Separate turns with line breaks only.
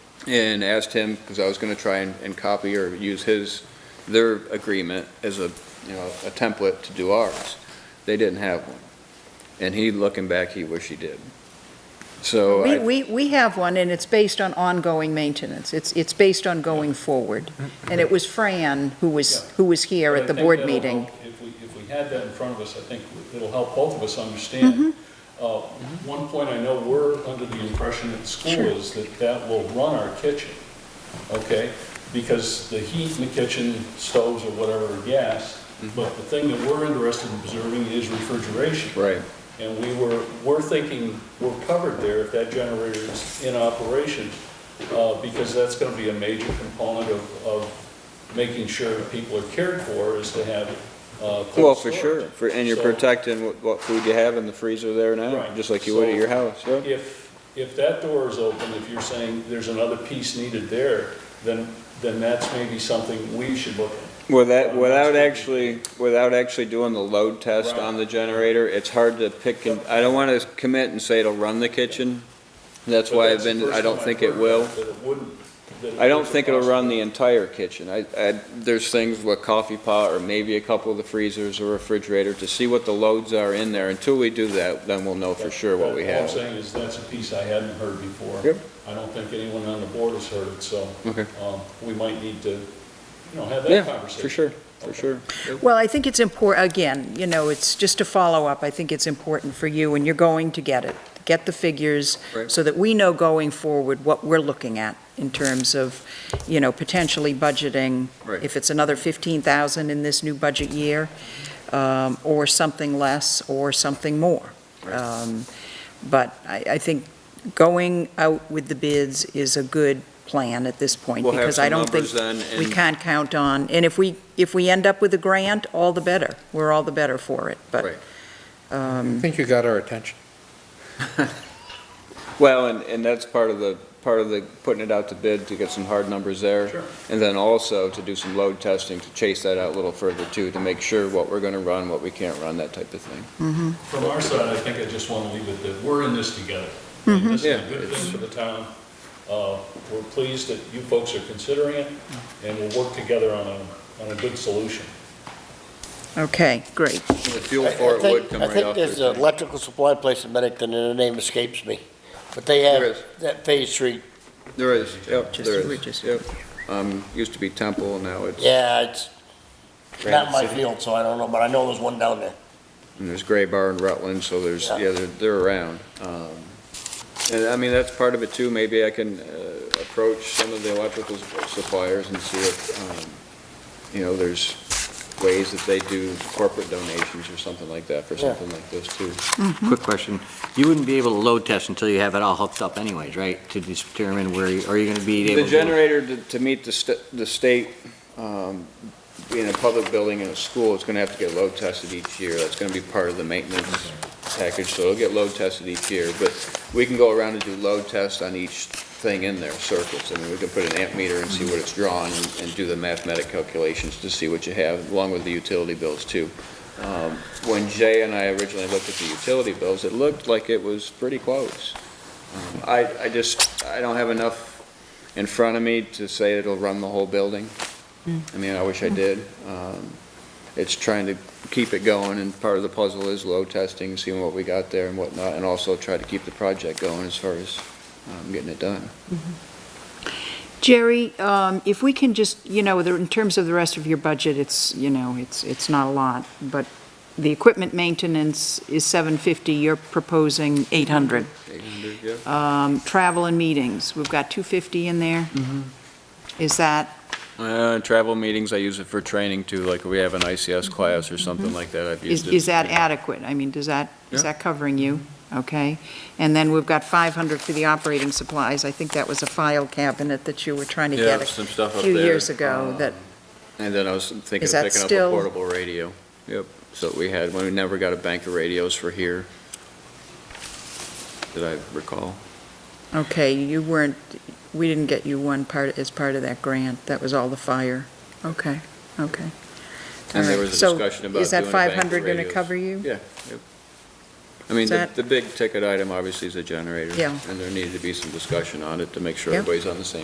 and asked him, because I was gonna try and, and copy or use his, their agreement as a, you know, a template to do ours. They didn't have one. And he, looking back, he wished he did. So,
We,
I-
we, we have one, and it's based on ongoing maintenance. It's, it's based on going forward. And it was Fran who was, who was here
But I
at the
think
board
that'll
meeting.
help- If we, if we had that in front of us, I think it'll help both of us
Mm-hmm.
understand. Uh, One point I know we're under the impression at school
Sure.
is that that will run our kitchen, okay? Because the heat in the kitchen, stoves or whatever, are gas, but the thing that we're interested in observing is refrigeration.
right,
And we were, we're thinking we're covered there if that generator is in operation, uh, because that's gonna be a major component of, of making sure that people are cared for is to have, uh, cold
well, for
storage.
sure, for, and you're
So
protecting what, what food you have in the freezer there now,
Right.
just like you would at your house, yeah?
If, if that door is open, if you're saying there's another piece needed there, then, then that's maybe something we should look at.
Without, without actually, without actually doing the load test
Right.
on the generator, it's hard to pick and, I don't wanna commit and say it'll run the kitchen. That's
But
why I've
that's the
been,
first
I don't
time
think
I've
it
heard
will.
That it wouldn't. that it
I don't
was a
think it'll run
possibility.
the entire kitchen. I, I, there's things with coffee pot or maybe a couple of the freezers or refrigerator to see what the loads are in there. Until we do that, then we'll know for sure what we
All I'm
have.
saying is that's a piece I hadn't heard before.
Yep.
I don't think anyone on the board has heard it, so.
Okay.
um, We might need to, you know, have that
Yeah,
conversation.
for sure, for sure.
Well, I think it's important, again, you know, it's just to follow up, I think it's important for you, and you're going to get it. Get the figures
Right.
so that we know going forward what we're looking at in terms of, you know, potentially budgeting.
Right.
If it's another 15,000 in this new budget year, um, or something less, or something more.
Right.
Um, But I, I think going out with the bids is a good plan at this point.
We'll have
because I
some
don't think
numbers then
we
and,
can't count on, and if we, if we end up with a grant, all the better, we're all the better for it,
Right.
but,
I
um,
think you got our attention.
well, and, and that's part of the, part of the, putting it out to bid to get some hard numbers there.
Sure.
And then also to do some load testing to chase that out a little further too, to make sure what we're gonna run, what we can't run, that type of thing.
From our side, I think I just want to leave it that we're in this together. And This is
Mm-hmm. Yeah,
a good
it's-
thing for the town. Uh, We're pleased that you folks are considering it, and we'll work together on a, on a good solution.
okay, great.
The fuel
I- I
for it would
think-
come
I
right
think
off
there's
their
an electrical supply place in Bennington, and the name escapes me, but they
There is.
have that phase three,
There is, yep,
Just-
there
we
is,
just-
yep. Um, used to be Temple, and now it's,
yeah, it's not
Granite
my
City.
field, so I don't know, but I know there's one down there.
and there's Gray Bar and Rutland, so there's,
Yeah.
yeah, they're, they're around. Um, And I mean, that's part of it too, maybe I can, uh, approach some of the electrical s- suppliers and see if, um, you know, there's ways that they do corporate donations or something like that for
Yeah.
something like this too.
Quick question. You wouldn't be able to load test until you have it all hooked up anyways, right? To determine where, you- are you going to be able
The
to?
generator to, to meet the st- the state, um, being a public building and a school, it's gonna have to get load tested each year. That's gonna be part of the maintenance package, so it'll get load tested each year. But we can go around and do load tests on each thing in there, circuits. I mean, we can put an amp meter and see what it's drawing and, and do the mathematic calculations to see what you have, along with the utility bills too. Um, When Jay and I originally looked at the utility bills, it looked like it was pretty close. Um, I, I just, I don't have enough in front of me to say it'll run the whole building.
Hmm.
I mean, I wish I did. Um, It's trying to keep it going, and part of the puzzle is load testing, seeing what we got there and whatnot, and also try to keep the project going as far as um, getting it done.
Jerry, um, if we can just, you know, the- in terms of the rest of your budget, it's, you know, it's, it's not a lot, but the equipment maintenance is 750, you're proposing 800.
Mm-hmm. 800, yeah?
Um, Travel and meetings, we've got 250 in there.
Mm-hmm.
Is that,
Uh, Travel meetings, I use it for training too, like we have an ICS class or something like that, I've
Hmm. is
used it.
is that adequate? I mean, does that, is
Yeah.
that covering you? Okay. And then we've got 500 for the operating supplies. I think that was a file cabinet that you were trying to
Yeah,
get
some stuff
a
up
few
there. Uh, Um,
years ago that,
And then I was thinking
Is
of
that
picking up a
still-
portable radio. Yep. So we had, we never got a bank of radios for here, that I recall.
okay, you weren't, we didn't get you one part, as part of that grant. That was all the fire. Okay, okay.
And there
All right.
was a
So
discussion about
Is that
doing a bank of
500 going to
radios.
cover you?
Yeah, yep. I mean,
Is
the,
that-
the big ticket item obviously is the generator.
Yeah.
And there needed to be some discussion on it to make sure
Yeah.
everybody's on the same